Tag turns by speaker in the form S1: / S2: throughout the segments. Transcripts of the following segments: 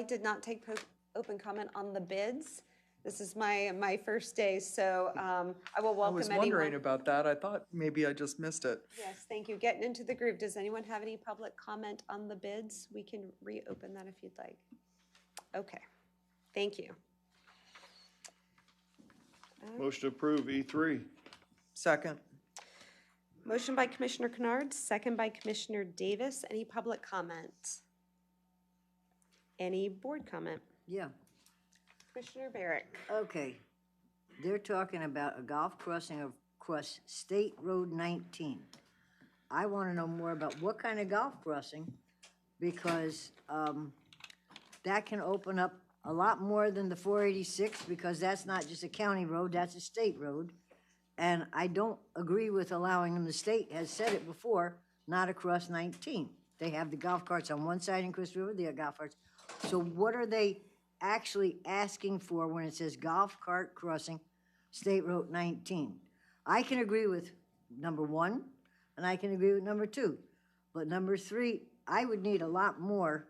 S1: I did not take po- open comment on the bids. This is my, my first day, so um, I will
S2: I
S1: welcome
S2: was
S1: anyone.
S2: wondering about that. I thought maybe I just missed it.
S1: Yes, thank you. Getting into the groove. Does anyone have any public comment on the bids? We can reopen that if you'd like. Okay, thank you.
S3: Motion to approve E E3.
S2: Second,
S1: Motion by Commissioner Kennard, second by Commissioner Davis. Any public comment? Any board comment?
S4: Yeah,
S1: Commissioner Barrick?
S4: okay. They're talking about a golf crossing across State Road 19. I want to know more about what kind of golf crossing, because um, that can open up a lot more than the 486, because that's not just a county road, that's a state road. And I don't agree with allowing them, the state has said it before, not across 19. They have the golf carts on one side in Chris River, they have golf carts. So what are they actually asking for when it says golf cart crossing State Road 19? I can agree with number one, and I can agree with number two. But number three, I would need a lot more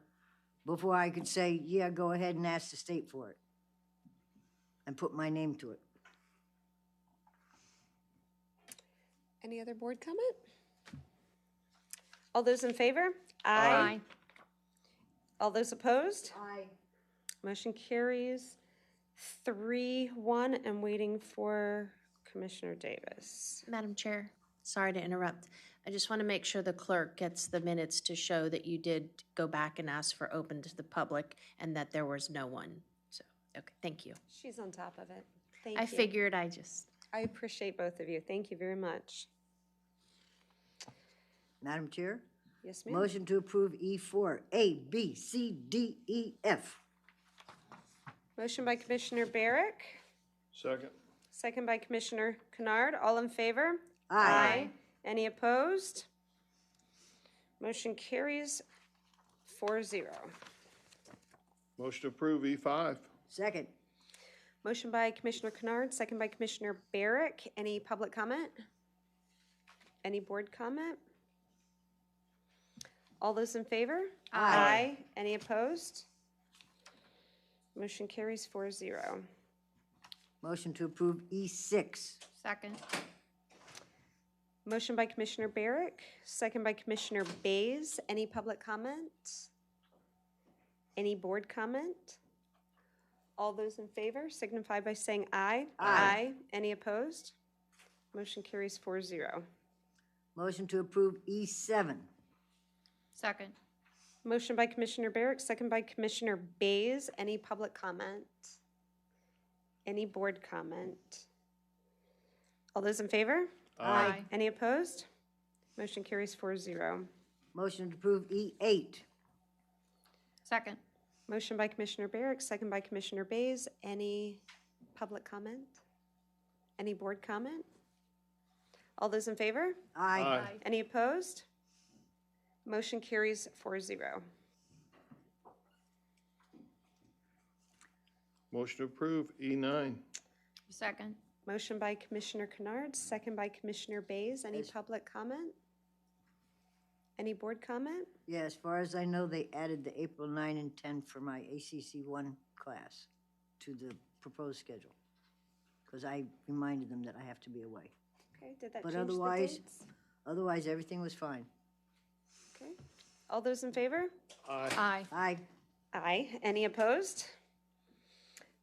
S4: before I could say, yeah, go ahead and ask the state for it. And put my name to it.
S1: Any other board comment? All those in favor?
S3: Aye.
S1: All those opposed?
S4: Aye.
S1: Motion carries three, one, and waiting for Commissioner Davis.
S5: Madam Chair, sorry to interrupt. I just want to make sure the clerk gets the minutes to show that you did go back and ask for open to the public and that there was no one. So, okay, thank you.
S1: She's on top of it. Thank you.
S5: I figured I just,
S1: I appreciate both of you. Thank you very much.
S4: Madam Chair?
S1: Yes, ma'am.
S4: Motion to approve E4, A, B, C, D, E, F.
S1: Motion by Commissioner Barrick,
S3: Second.
S1: second by Commissioner Kennard. All in favor? Any opposed? Motion carries four zero.
S3: Motion to approve E E5.
S4: Second.
S1: Motion by Commissioner Kennard, second by Commissioner Barrick. Any public comment? Any board comment? All those in favor? Aye. Any opposed? Motion carries four zero.
S4: Motion to approve E E6.
S6: Second.
S1: Motion by Commissioner Barrick, second by Commissioner Bays. Any public comment? Any board comment? All those in favor signify by saying aye. Aye. Any opposed? Motion carries four zero.
S4: Motion to approve E E7.
S6: Second.
S1: Motion by Commissioner Barrick, second by Commissioner Bays. Any public comment? Any board comment? All those in favor?
S6: Aye.
S1: Any opposed? Motion carries four zero.
S4: Motion to approve E E8.
S6: Second.
S1: Motion by Commissioner Barrick, second by Commissioner Bays. Any public comment? Any board comment? All those in favor?
S4: Aye.
S1: Any opposed? Motion carries four zero.
S3: Motion to approve E E9.
S6: Second.
S1: Motion by Commissioner Kennard, second by Commissioner Bays. Any
S4: Yes.
S1: public comment? Any board comment?
S4: Yeah, as far as I know, they added the April 9 and 10 for my ACC1 class to the proposed schedule. Because I reminded them that I have to be away.
S1: Okay, did that
S4: But
S1: change the
S4: otherwise-
S1: dates?
S4: Otherwise, everything was fine.
S1: Okay. All those in favor?
S3: Aye.
S6: Aye.
S4: Aye.
S1: Aye. Any opposed?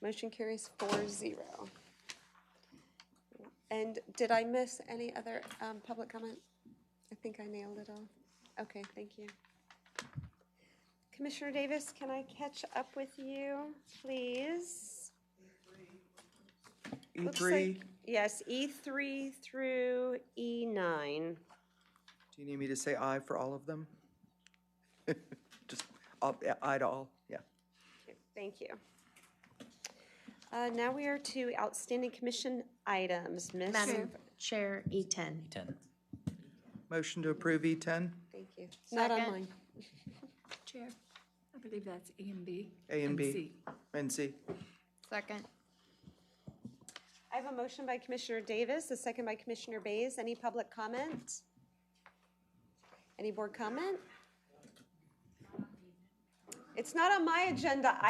S1: Motion carries four zero. And did I miss any other um, public comment? I think I nailed it all. Okay, thank you. Commissioner Davis, can I catch up with you, please? Looks
S2: E3,
S1: like- Yes, E3 through E E9.
S2: do you need me to say aye for all of them? Just up- aye to all, yeah.
S1: Thank you. Uh, Now we are to outstanding commission items. Ms.
S5: Madam Chair, E E10.
S2: Motion to approve E E10,
S1: Thank you. Not on
S6: Second.
S1: mine.
S7: Chair, I believe that's A and B.
S2: A and B,
S7: C.
S2: and C.
S6: Second.
S1: I have a motion by Commissioner Davis, a second by Commissioner Bays. Any public comment? Any board comment? It's not on my agenda.